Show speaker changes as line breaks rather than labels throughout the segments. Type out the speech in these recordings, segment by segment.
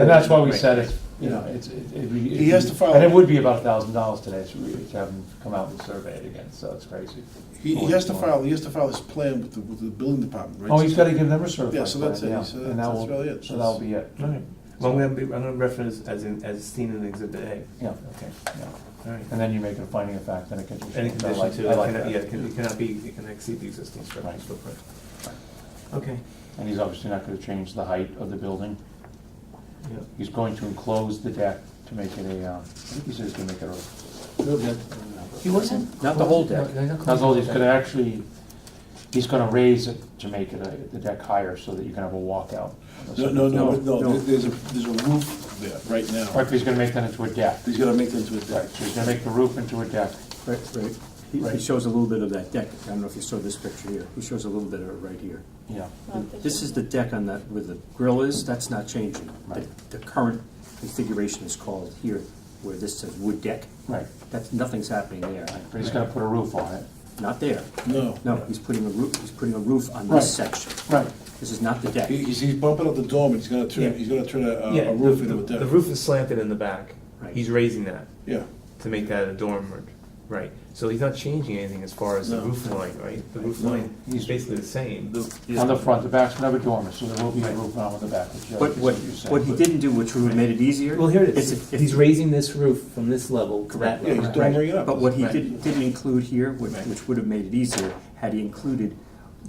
And that's why we
Right.
said it's, you know, it's, it- it'd be.
He has to file-
And it would be about a thousand dollars today to re- to have him come out and survey it again, so it's crazy.
He, he has to file, he has to file his plan with the, with the building department, right?
Oh, he's gotta give them a survey.
Yeah, so that's
plan,
it.
yeah,
So
and
that-
that
that's
will-
really it.
So that'll be it.
All right. Well, I'm gonna be, I'm gonna reference as in, as seen in Exhibit A.
Yeah,
Okay,
yeah.
all right.
And then you make it a finding of fact, then it gets.
Any condition too,
I
it
like
cannot,
that.
yeah, it can- it cannot be, it can exceed the existing structure
Right.
footprint. Okay,
And he's obviously not gonna change the height of the building.
yeah.
He's going to enclose the deck to make it a, um, I think he said he's gonna make it a,
He wasn't?
Not the whole deck.
not all, he's gonna actually, he's gonna raise it to make it a, the deck higher so that you can have a walkout.
No, no, no,
No,
no,
no.
there's a, there's a roof there right
Right,
now.
but he's gonna make that into a deck.
He's gonna make them to a
Right,
deck.
so he's gonna make the roof into a deck.
Right, right. He- He
Right.
shows a little bit of that deck. I don't know if you saw this picture here. He shows a little bit of it right here.
Yeah.
This is the deck on that, where the grill is, that's not changing. The,
Right.
the current configuration is called here, where this says wood deck.
Right,
That's, nothing's happening there.
but he's gonna put a roof on it.
Not there.
No.
No, he's putting a roof, he's putting a roof on
Right.
this section.
Right.
This is not the deck.
He, he's, he's bumping up the dorm, and he's gonna
Yeah.
turn, he's gonna turn a,
Yeah,
a- a
the-
roof into a
the-
deck.
The roof is slanted in the back.
Right.
He's raising that
Yeah,
to make that a dormer, right? So he's not changing anything as far as the
No.
roof line, right? The roof
No.
line is
He's-
basically the same.
On the front, the back's never dormer, so there will be a roof on the back, which
But
is
what,
what you said.
what he didn't do, which would have made it easier.
Well, here it
It's
is.
a-
He's raising this roof from this level to that
Correct.
yeah, he's
level.
dormering it up.
But what he
Right.
didn't, didn't include here, which,
Right.
which would have made it easier, had he included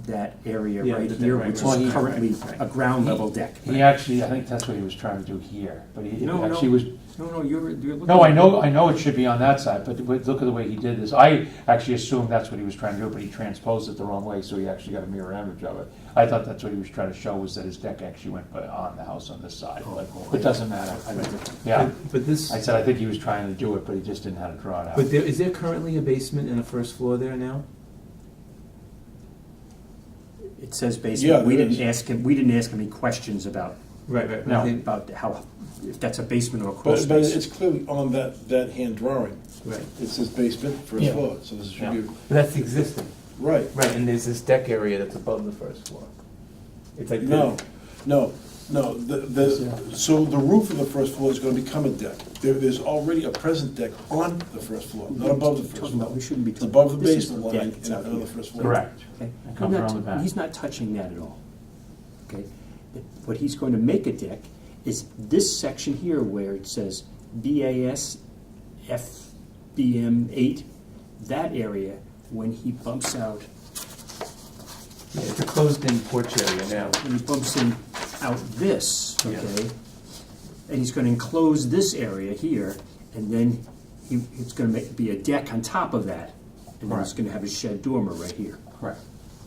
that area
Yeah,
right
the-
here,
right,
which
right,
is
right.
currently a ground level deck.
He actually, I think that's what he was trying to do here, but he it
No,
actually
no.
was,
No, no, you're, you're looking.
no, I know, I know it should be on that side, but wait, look at the way he did this. I actually assumed that's what he was trying to do, but he transposed it the wrong way, so he actually got a mirror image of it. I thought that's what he was trying to show, was that his deck actually went uh, on the house on this side, but
Oh,
it doesn't matter. Yeah,
But- But this,
I said, I think he was trying to do it, but he just didn't know how to draw it out.
but there, is there currently a basement and a first floor there now?
It says
Yeah,
basement, we
there
didn't
is.
ask him, we didn't ask him any questions about,
Right, right.
No.
Right,
about how, if that's a basement or a crawl
But, but
space.
it's clearly on that, that hand drawing.
right.
It says basement, first
Yeah.
floor, so this should
Yeah.
be,
But that's existing,
right.
right? And there's this deck area that's above the first floor. It's like. the-
No, no, no, the, the, so the roof of the first floor is gonna become a deck. There, there's already a present deck on the first floor, not above the first
Talking about-
floor.
We shouldn't be
It's
talking.
above the
this is
basement
the
line
deck, it's
and
out
on the
here.
first floor.
Correct.
Okay,
It
I'm
comes around the
not,
back.
he's not touching that at all, okay? What he's going to make a deck is this section here where it says BAS FBM eight, that area, when he bumps out,
Yeah, It's a closed-in porch area now.
when he bumps in out this,
Yeah.
okay? And he's gonna enclose this area here, and then he, it's gonna make, be a deck on top of that. And then he's
Correct.
gonna have a shed dormer right here,
Correct.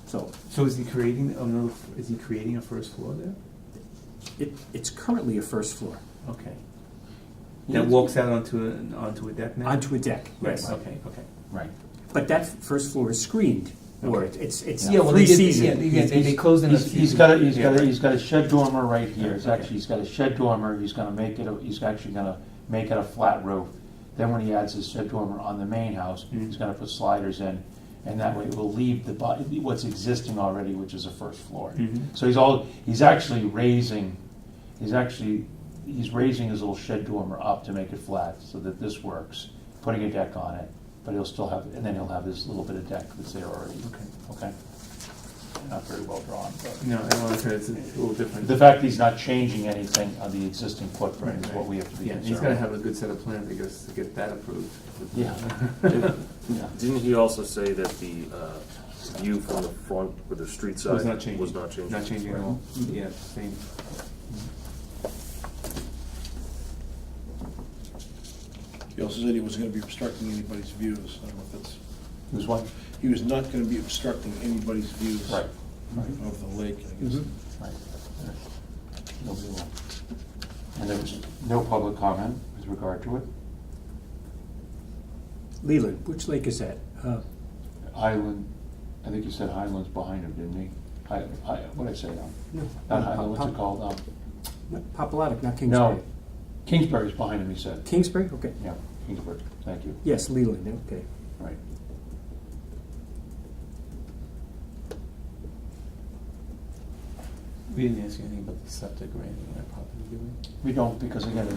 so
So is he creating another, is he creating a first floor there?
it, it's currently a first floor.
Okay. That
Yeah.
walks out onto, a- onto a deck now?
Onto a deck,
Right,
yes.
okay, okay.
Right.
But that first floor is screened, or it's, it's
Yeah, well, they
three
did- yeah,
season.
they- they- they closed in a
He's- He's
season.
got a, he's got a,
Yeah.
he's got a shed dormer right here, it's
Okay.
actually, he's got a shed dormer, he's gonna make it, a- he's actually gonna make it a flat roof. Then when he adds his shed dormer on the main house,
Mm-hmm.
he's gonna put sliders in, and that way it will leave the, bu- what's existing already, which is the first floor.
Mhm.
So he's all, he's actually raising, he's actually, he's raising his little shed dormer up to make it flat, so that this works, putting a deck on it, but he'll still have, and then he'll have his little bit of deck that's there already.
Okay.
Okay? Not very well drawn, but.
No, I don't know, it's a it's a little different.
The fact that he's not changing anything on the existing footprint is what we have to be
Yeah, he's gotta
concerned with.
have a good set of plans, I guess, to get that approved.
Yeah. Yeah.
Didn't he also say that the uh, view from the front with the street side
Was not changing.
was not changing?
Not changing at all, yeah, same.
He also said he wasn't gonna be obstructing anybody's views, I don't know if that's,
There's one,
he was not gonna be obstructing anybody's views.
right,
Of the lake, I guess.
Mm-hmm.
right. Nobody will. And there was no public comment with regard to it.
Leland, which lake is that? Uh,
Highland, I think you said Highland's behind him, didn't he? Hi, Hi, what'd I say? Um,
no,
Uh,
Not Highland, what's it
Pop-
called? Um,
Pop- Popolotic, not Uh, Kingsbury.
No, Kingsbury's behind him, he said.
Kingsbury, okay.
Yeah, Kingsbury, thank you,
Yes, Leland, okay.
right.
We didn't ask you anything about the septic or anything on that property, did we?
We don't, because again,